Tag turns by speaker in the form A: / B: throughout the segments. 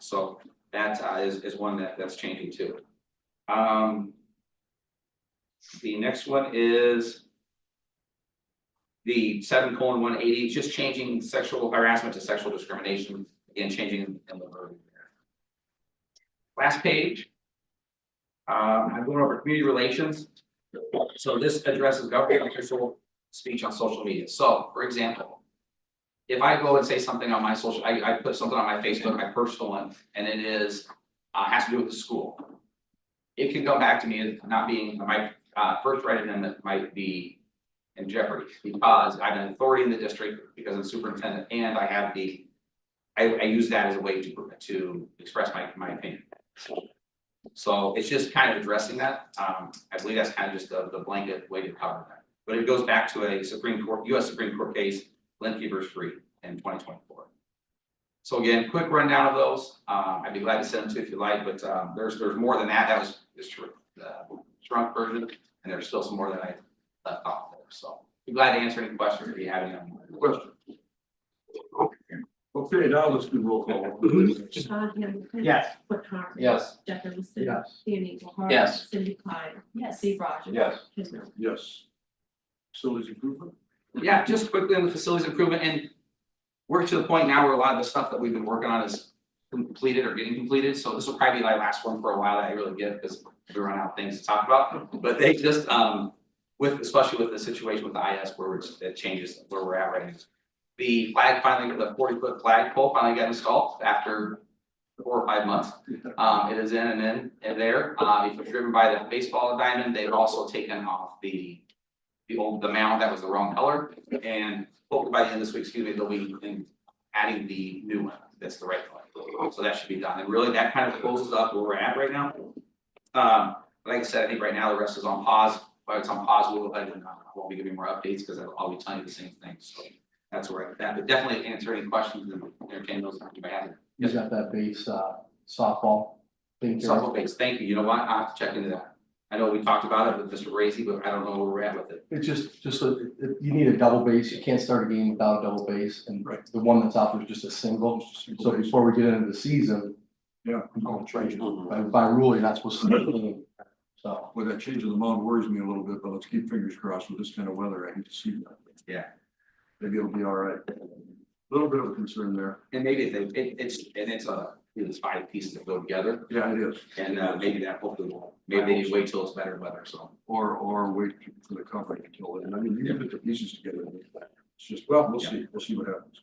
A: so that uh, is is one that that's changing too. Um. The next one is. The seven colon one eighty, just changing sexual harassment to sexual discrimination, again, changing in the verb there. Last page. Um, I'm going over community relations. So this addresses government official speech on social media, so, for example. If I go and say something on my social, I I put something on my Facebook, my personal one, and it is, uh, has to do with the school. It can come back to me as not being, my, uh, first right amendment might be in jeopardy, because I'm an authority in the district, because I'm superintendent, and I have the. I, I use that as a way to, to express my, my opinion. So it's just kind of addressing that, um, I believe that's kind of just the, the blanket way to cover that. But it goes back to a Supreme Court, US Supreme Court case, Linkey versus Free in twenty twenty-four. So again, quick rundown of those, uh, I'd be glad to send them to you if you like, but, um, there's, there's more than that, that was just shrunk- the shrunk version, and there's still some more that I left off there, so. Be glad to answer any questions if you have any.
B: Question. Okay, now let's do roll call.
C: Mm-hmm.
D: Sean Hamilton.
C: Yes.
D: Whit Conklin.
C: Yes.
D: Jeff Emerson.
C: Yes.
D: Danny Eagleheart.
C: Yes.
D: Cindy Klein. Yes. Steve Rogers.
C: Yes.
D: Ken Miller.
B: Yes. Facilities improvement?
A: Yeah, just quickly on the facilities improvement and. We're to the point now where a lot of the stuff that we've been working on is completed or getting completed, so this will probably be my last one for a while that I really give, because we run out of things to talk about. But they just, um, with, especially with the situation with the IS where it's, it changes where we're at right now. The flag finally, the forty foot flag pole finally got installed after four or five months. Um, it is in and in and there, uh, it was driven by the baseball diamond, they've also taken off the the old, the mound that was the wrong color, and hopefully by the end of this week, excuse me, they'll be in- adding the new one, that's the right color. So that should be done, and really, that kind of closes up where we're at right now. Um, like I said, I think right now the rest is on pause, but it's on pause, we'll, I don't know, uh, I won't be giving more updates, because I'll I'll be telling you the same thing, so. That's where I'm at, that, but definitely answer any questions and entertain those, if you have any.
C: You got that base uh softball thing there.
A: Supplemental base, thank you, you know what, I have to check into that. I know we talked about it with Mr. Raisy, but I don't know where we're at with it.
C: It's just, just, a- it- it- you need a double base, you can't start a game without a double base, and the one that's out there is just a single. So before we get into the season.
B: Yeah.
C: you don't trade. By, by rule, you're not supposed to start a game, so.
B: Well, that change in the mound worries me a little bit, but let's keep fingers crossed with this kind of weather. I hate to see that.
A: Yeah.
B: Maybe it'll be all right. Little bit of a concern there.
A: And maybe they, it, it's, and it's a, it's five pieces that go together,
B: Yeah, it is.
A: and uh, maybe that hopefully will, maybe they wait till it's better weather, so.
B: Or, or wait for the coverage until then. I mean, you can put the pieces together. It's just, well, we'll see. We'll see what happens.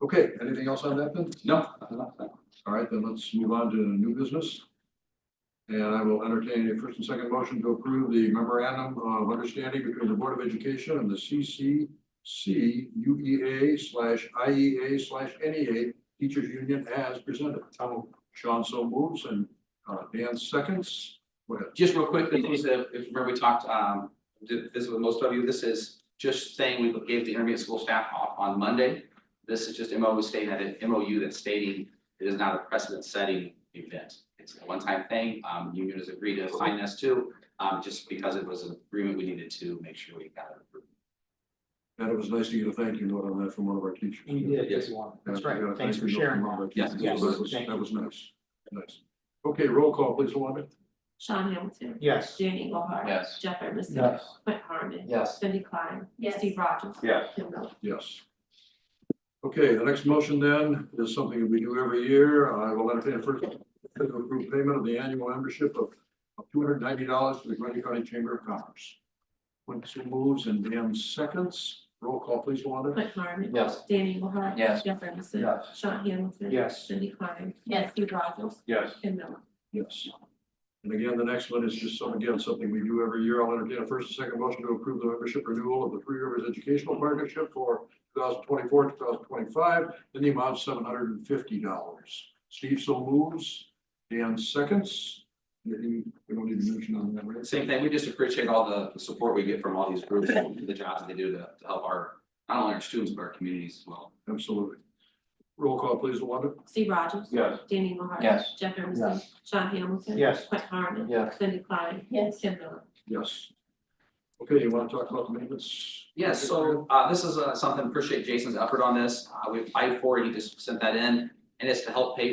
B: Okay, anything else on that then?
A: No, nothing like that.
B: All right, then let's move on to new business. And I will entertain a first and second motion to approve the memorandum of understanding between the Board of Education and the CCC UEA E slash IEA slash NEA Teachers Union as presented. Sean so moves and uh, Dan seconds. Go ahead.
A: just real quick, the things that, if you remember we talked, um, did- this is with most of you, this is just saying we gave the intermediate school staff off on Monday. This is just MOU stating that, it- MOU that's stating it is not a precedent setting event. It's a one-time thing, um, union has agreed to sign this too, um, just because it was an agreement we needed to make sure we got it approved.
B: And it was nice to get a thank you note on that from one of our teachers.
E: We did get
A: Yes.
E: one.
B: Yeah,
E: That's right.
B: we got a
E: Thanks for
B: thank you note from
E: sharing.
B: one of our
A: Yes,
B: teachers.
E: yes,
B: That was,
E: thank
B: that
E: you.
B: was nice, nice. Okay, roll call, please, Alana.
D: Sean Hamilton.
E: Yes.
D: Danny Eagleheart.
C: Yes.
D: Jeff Emerson.
C: Yes.
D: Whit Harman.
C: Yes.
D: Cindy Klein. Yes. Steve Rogers.
A: Yes.
D: Ken Miller.
B: Yes. Okay, the next motion then is something we do every year. I will entertain a first to approve payment of the annual membership of of two hundred ninety dollars to the Grundy County Chamber of Commerce. Quincy moves and Dan seconds. Roll call, please, Alana.
D: Whit Harman.
C: Yes.
D: Danny Eagleheart.
C: Yes.
D: Jeff Emerson.
C: Yes.
D: Sean Hamilton.
E: Yes.
D: Cindy Klein. Yes. Steve Rogers.
E: Yes.
D: Ken Miller.
B: Yes. And again, the next one is just some, again, something we do every year. I'll entertain a first and second motion to approve the membership renewal of the Three Rivers Educational Partnership for two thousand twenty-four, two thousand twenty-five, in the amount of seven hundred and fifty dollars. Steve so moves, Dan seconds. Anything, we don't need to mention on that, right?
A: Same thing, we just appreciate all the support we get from all these groups, and the jobs that they do to to help our, not only our students, but our communities as well.
B: Absolutely. Roll call, please, Wanda.
D: Steve Rogers.
E: Yes.
D: Danny Eagleheart.
C: Yes.
D: Jeff Emerson.
C: Yes.
D: Sean Hamilton.
E: Yes.
D: Whit Harman.
C: Yes.
D: Cindy Klein. Yes. Ken Miller.
B: Yes. Okay, you want to talk about the maintenance?
A: Yes, so uh this is uh something, appreciate Jason's effort on this, uh we applied for, it. he just sent that in, and it's to help pay